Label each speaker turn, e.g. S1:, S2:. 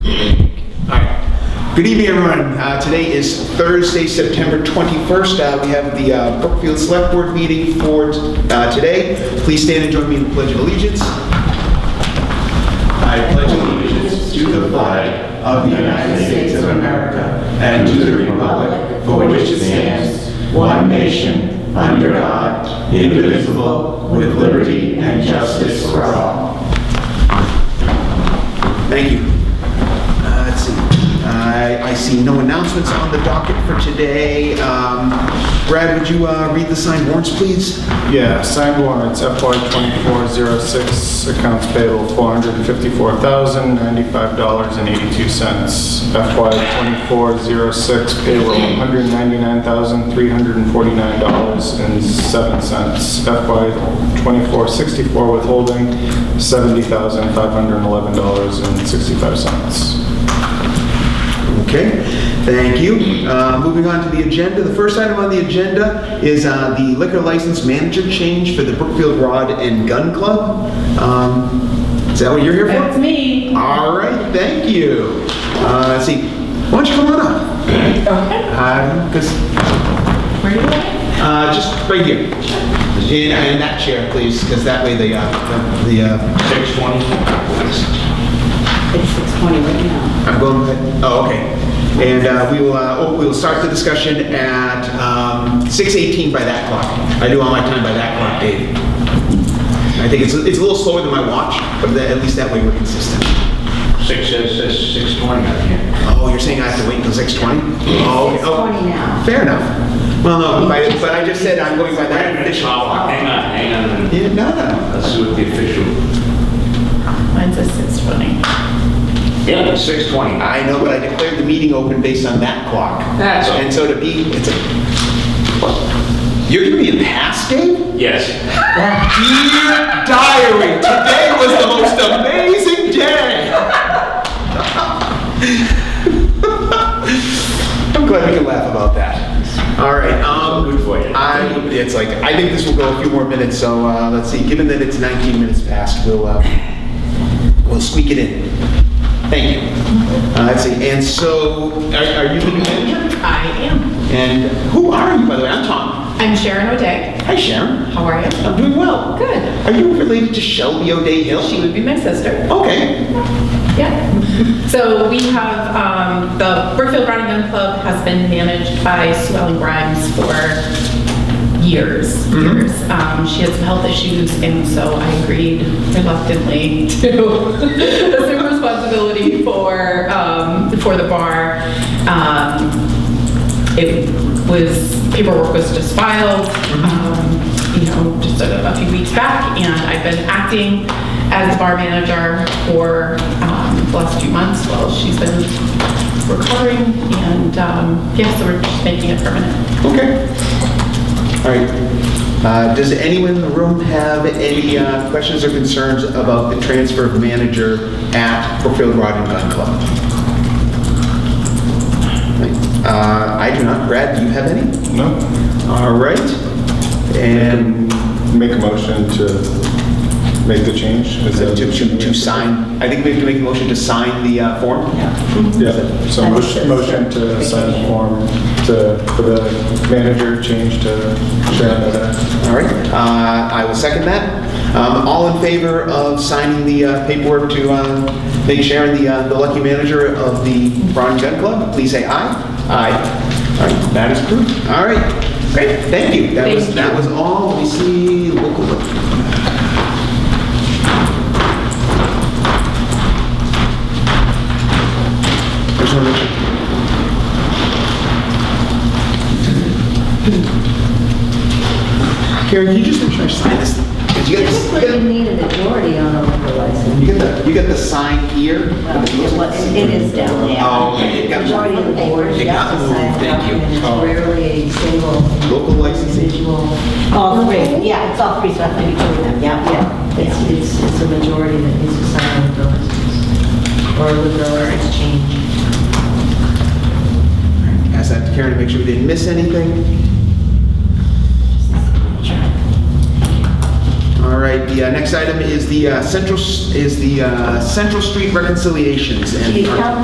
S1: Good evening, everyone. Uh, Today is Thursday, September 21st. Uh, We have the uh, Brookfield Select Board meeting for uh, today. Please stand and join me in the Pledge of Allegiance.
S2: I pledge allegiance to the flag of the United States of America and to the republic for which it stands, one nation, under God, indivisible, with liberty and justice for all.
S1: Thank you. Uh, Let's see. Uh, I I see no announcements on the docket for today. Um, Brad, would you uh, read the signed warrants, please?
S3: Yeah, signed warrants, FY 2406, accounts payable $454,095.82. FY 2406 payroll $199,349.07. FY 2464 withholding $70,511.65.
S1: Okay, thank you. Uh, Moving on to the agenda, the first item on the agenda is uh, the liquor license manager change for the Brookfield Rod and Gun Club. Um, Is that what you're here
S4: That's
S1: for?
S4: me.
S1: All right, thank you. Uh, Let's see, why don't you come on up?
S4: Okay.
S1: Uh, 'cause,
S4: Where are you going?
S1: uh, Just right here. In in that chair, please, because that way the, uh, the, uh,
S2: 620.
S4: It's 6:20 right now.
S1: I'm going, with- oh, okay. And uh, we will, uh, oh, we will start the discussion at um, 6:18 by that clock. I do all my time by that clock, Dave. I think it's, it's a little slower than my watch, but tha- at least that way we're consistent.
S2: 6, says 620, I can't.
S1: Oh, you're saying I have to wait until 6:20? Oh, okay. Oh,
S4: 6:20 now.
S1: Fair enough. Well, no, but I- but I just said I'm going by that official.
S2: Oh, Hang on, hang on. a minute.
S1: Yeah, no, no.
S2: Let's see what the official.
S4: Mine says 6:20.
S2: Yeah, 620.
S1: I know, but I declared the meeting open based on that clock.
S2: That's all.
S1: And so to be, it's a, you're giving me a pass, Dave?
S2: Yes.
S1: Dear diary, today was the most amazing day. I'm glad we can laugh about that. All right. Um,
S2: Good for you.
S1: I, it's like I think this will go a few more minutes. So uh, let's see. Given that it's 19 minutes past, we'll uh, we'll squeak it in. Thank you. Uh, let's see. And so, are, are you the new manager?
S5: I am.
S1: And who are you, by the way? I'm Tom.
S5: I'm Sharon O'Day.
S1: Hi, Sharon.
S5: How are you?
S1: I'm doing well.
S5: Good.
S1: Are you related to Shelby O'Day Hill?
S5: She would be my sister.
S1: Okay.
S5: Yeah. So we have, um, the Brookfield Brown and Gun Club has been managed by Sue Ellen Grimes for years, years. Um, she has some health issues and so I agreed reluctantly to assume responsibility for, um, for the bar. Um, it was, paperwork was just filed, um, you know, just a a few weeks back, and I've been acting as the bar manager for um, the last few months while she's been recovering, and, um, yeah, so we're just making it permanent.
S1: Okay. All right. Uh, Does anyone in the room have any uh, questions or concerns about the transfer of manager at Brookfield Rod and Gun Club? Uh, I do not. Brad, do you have any?
S3: No?
S1: All right. And
S3: Make a motion to make the change? Is
S1: to
S3: that-
S1: to- to sign, I think we have to make a motion to sign the uh, form?
S3: Yeah, so motion motion to sign the form to, for the manager change to Sharon O'Day.
S1: All right, uh, I will second that. Um, All in favor of signing the uh, paperwork to uh, make Sharon the uh, the lucky manager of the Braun Gun Club, please say aye. Aye. All right, that is approved. All right, great, thank you. That was,
S5: Thank
S1: that
S5: you.
S1: was all, let me see, local. There's no motion. Karen, can you just make sure I sign this? 'Cause you got this- you
S6: Typically, you
S1: got-
S6: need a majority on a liquor license.
S1: You get the, you get the sign here?
S6: Well, It was- it is down there.
S1: Oh, okay, it got
S6: Majority of the board,
S1: It
S6: you
S1: got
S6: have to
S1: moved,
S6: sign it,
S1: thank you.
S6: and it's
S1: Oh.
S6: rarely a single
S1: Local licensing.
S6: individual. All three, yeah, it's all three, so I have to be doing them, yeah, yeah. It's, it's, it's a majority that needs to sign a liquor license, or a liquor license change.
S1: Ask that to Karen to make sure we didn't miss anything. All right, the uh, next item is the uh, Central, S- is the uh, Central Street reconciliations. and.
S6: The account